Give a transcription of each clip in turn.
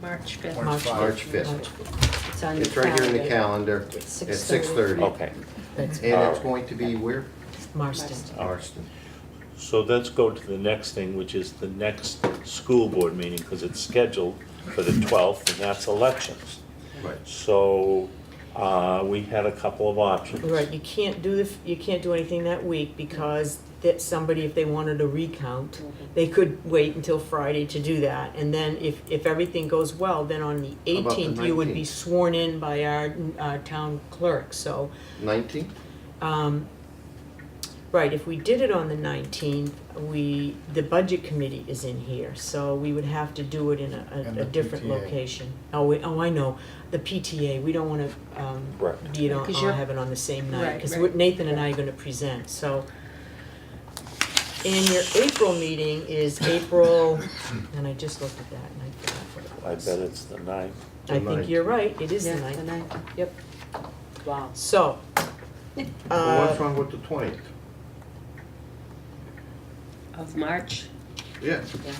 March 5th. March fifth. March fifth. It's on your It's right here in the calendar. calendar at Oh. It's 6:30. Okay, That's And it's going to be where? Marston. Marston. So let's go to the next thing, which is the next school board meeting, because it's scheduled for the 12th, and that's elections. Right. So uh, we had a couple of options. Right, you can't do the, you can't do anything that week because that somebody, if they wanted a recount, they could wait until Friday to do that. And then if, if everything goes well, then on the How about the eighteenth, you would be 19th? sworn in by our, uh town clerk, so. 19th? Um, right, if we did it on the nineteenth, we, the budget committee is in here, so we would have to do it in a, And a, a the different PTA. location. Oh, we, oh, I know, the PTA, we don't wanna, um, Right. be it on, Because all you're- have it on the same Right, night, cause right. we're- Nathan and I are gonna present, so. And your April meeting is April, and I just looked at that and I forgot what I it bet was. it's the 9th. I think you're right, it is the Yeah, ninth, the ninth. yep, Wow. so. Well, uh, What's wrong with the 20th? Of March, Yeah. yeah.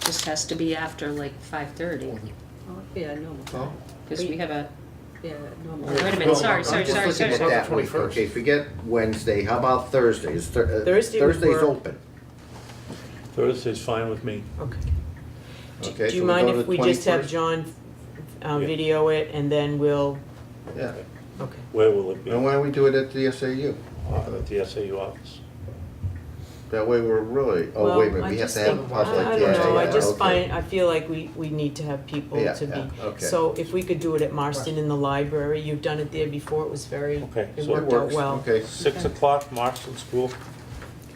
Just has to be after like 5:30, Yeah, normal. Well, because we have a, Yeah, normal. wait a no, minute, sorry, I'm sorry, just sorry, looking sorry. at that week. Okay, forget Wednesday. How about Thursday? Is Thur- uh, Thursday would Thursday's work. open. Thursday's fine with me. Okay. Do- Okay, Do so you we mind go to if the we just have 21st? John uh, Yeah. video it and then we'll, Yeah. okay. Where will it be? And why don't we do it at the SAU? Uh, At the SAU office. That way we're really, oh, Well, wait a minute, I we have just to have a think- public. I- I yeah, don't know, I yeah, just okay. find, I feel like we, we need to have people Yeah, to be. yeah, okay. So if we could do it at Marston in the library, you've done it there before, it was very, Okay, it so it worked out Works, well. okay. 6 o'clock, Marston School.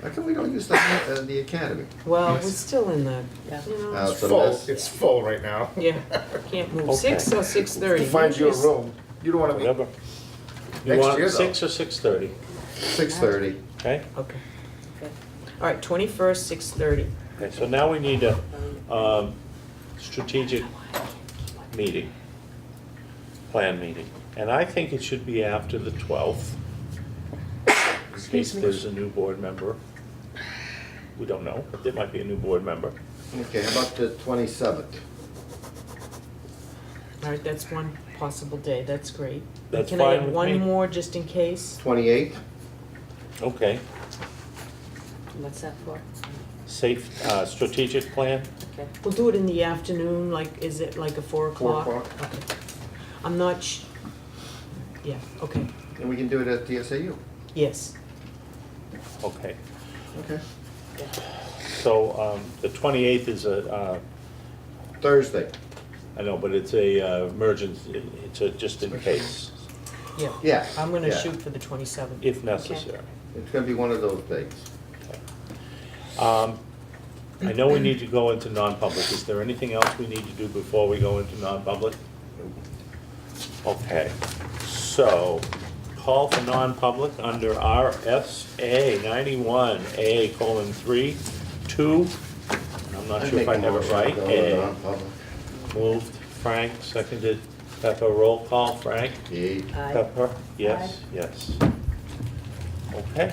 How come we don't use the, uh, the academy? Well, we're still in the, Yeah. you know, Uh, It's it's- so full, that's- it's full right now. yeah, can't move, Okay. six or six thirty. Find you a room, you don't wanna be. Whatever. You Next want year, though. six or six thirty, Six thirty. okay? Okay. All right, twenty-first, six thirty. Okay, so now we need a, um, strategic meeting, plan meeting. And I think it should be after the twelfth. In case Excuse me. there's a new board member. We don't know, but there might be a new board member. Okay, how about the twenty-seventh? All right, that's one possible day, that's great. That's Can I fine have with one me. more just in case? Twenty-eighth? Okay, What's that for? safe, uh, strategic plan? Okay. We'll do it in the afternoon, like, is it like a four Four o'clock? o'clock, Okay. I'm not sh- yeah, okay, and we can do it at the SAU. yes. Okay, Okay. so, um, the twenty-eighth is a, uh, Thursday, I know, but it's a, uh, emergency, it's a, just in case, Yeah. yeah. I'm gonna yeah. shoot for the twenty-seventh. if necessary. It's gonna be one of those days. Um, I know we need to go into non-public. Is there anything else we need to do before we go into non-public? Okay, so call for non-public under RSA ninety-one, A colon three, two, and I'm not I'd sure if make I a have it motion right. to go A. to non-public. Moved Frank, seconded Pepper. Roll call, Frank? Yay. Aye. Pepper, yes, yes. Okay,